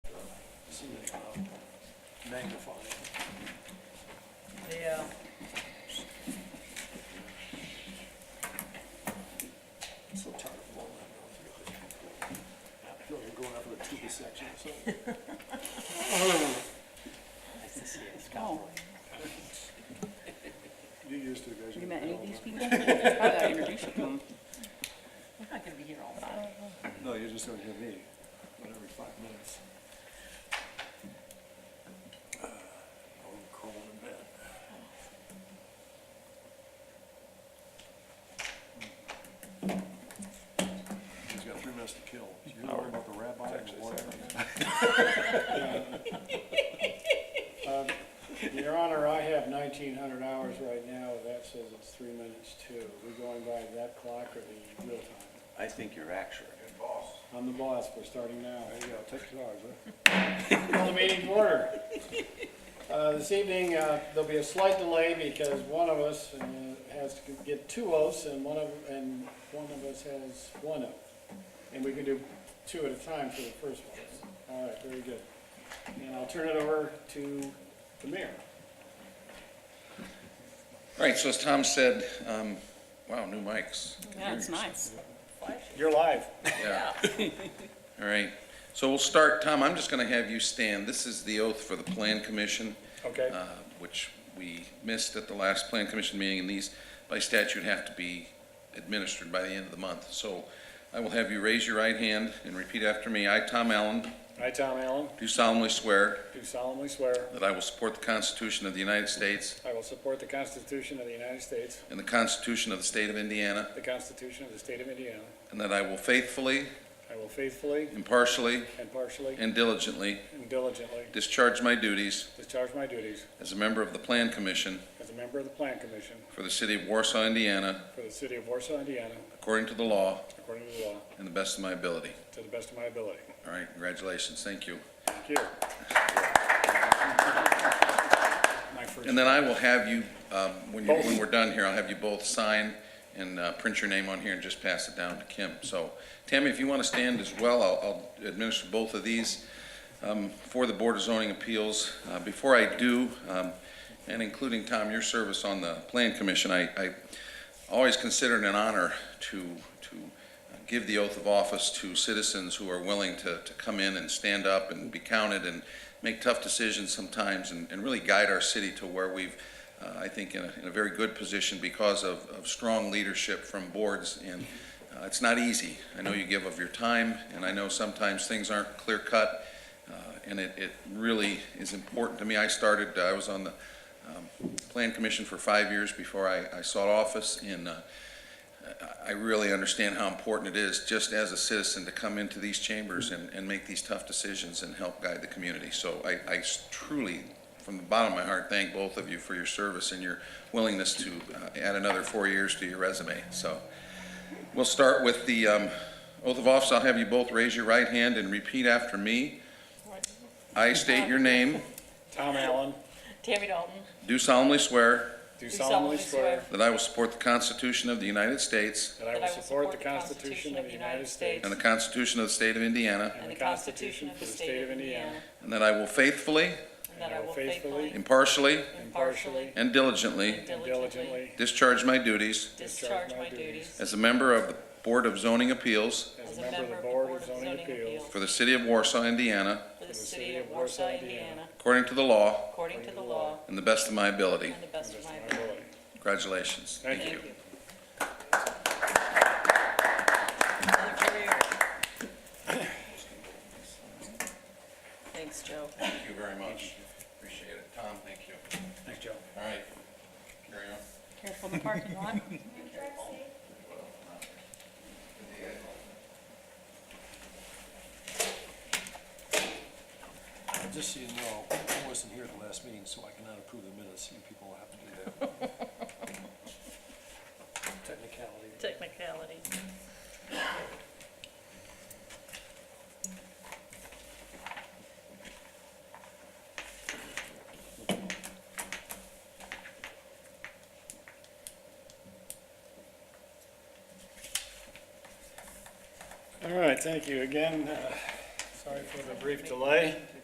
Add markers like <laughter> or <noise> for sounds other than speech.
see that uh, magnifying. Yeah. I'm so tired of blowing that noise. I feel like going up in a tube section or something. Nice to see you, Oh, You used to, guys. you met any of these people? <laughs> I gotta introduce you to them. We're not gonna be here all night. No, you just don't hear me, but every five minutes. Uh, I'm crawling in bed. She's got three minutes to kill. You know about the rabbi and the lawyer? Um, Your Honor, I have nineteen hundred hours right now, that says it's three minutes two. We're going by that clock or the real time? I think you're accurate. I'm the boss, we're starting now. There you go, take your hours, huh? Call the meeting to order. Uh, This evening, uh, there'll be a slight delay because one of us uh, has to get two oaths and one of, and one of us has one oath. And we can do two at a time for the first one. All right, very good. And I'll turn it over to the mayor. All right, so as Tom said, um, wow, new mics. Yeah, it's nice. You're live. Yeah. All right, so we'll start, Tom, I'm just going to have you stand. This is the oath for the Plan Commission, Okay. uh, which we missed at the last Plan Commission meeting, and these by statute have to be administered by the end of the month. So I will have you raise your right hand and repeat after me. I, Tom Allen, I, Tom Allen, do solemnly swear do solemnly swear that I will support the Constitution of the United States I will support the Constitution of the United States, and the Constitution of the State of Indiana, the Constitution of the State of Indiana. and that I will faithfully, I will faithfully, impartially, impartially, and diligently and diligently Discharge my duties discharge my duties as a member of the Plan Commission as a member of the Plan Commission for the City of Warsaw, Indiana, for the City of Warsaw, Indiana, according to the law according to the law, and the best of my ability. to the best of my ability. All right, congratulations, thank you. Thank you. My first. And then I will have you, um, when you, when we're done here, I'll have you both sign and uh, print your name on here and just pass it down to Kim. So Tammy, if you want to stand as well, I'll I'll administer both of these um, for the Board of Zoning Appeals. Uh, Before I do, um, and including, Tom, your service on the Plan Commission, I I always consider it an honor to, to give the oath of office to citizens who are willing to, to come in and stand up and be counted and make tough decisions sometimes and, and really guide our city to where we've, uh, I think, in a, in a very good position because of, of strong leadership from boards. And uh, it's not easy. I know you give of your time, and I know sometimes things aren't clear cut. Uh, and it, it really is important to me. I started, uh, I was on the um, Plan Commission for five years before I, I sought office, and uh, I- I really understand how important it is, just as a citizen, to come into these chambers and, and make these tough decisions and help guide the community. So I, I truly, from the bottom of my heart, thank both of you for your service and your willingness to uh, add another four years to your resume. So we'll start with the um, oath of office. I'll have you both raise your right hand and repeat after me. I state your name, Tom Allen, Tammy Dalton. do solemnly swear do solemnly swear that I will support the Constitution of the United States that I will support the Constitution of the United States and the Constitution of the State of Indiana, and the Constitution of the State of Indiana, and that I will faithfully, And that I will faithfully, impartially, impartially, and diligently and and diligently diligently, discharge my duties discharge my duties as a member of the Board of Zoning Appeals as a member of the Board of Zoning Appeals for the City of Warsaw, Indiana, for the City of Warsaw, Indiana, according to the law according to the law and the best of my ability. and the best of my my ability. ability. Congratulations. Thank Thank you. Another career. Thanks, Joe. Thank you very much. Appreciate it. Tom, thank you. Thanks, Joe. All right, carry on. Careful in the parking lot. Just so you know, I wasn't here at the last meeting, so I cannot approve the minutes. You people will have to do that. <laughs> Technicality. <laughs> Technicality. All right, thank you again. Uh, Sorry for the brief delay.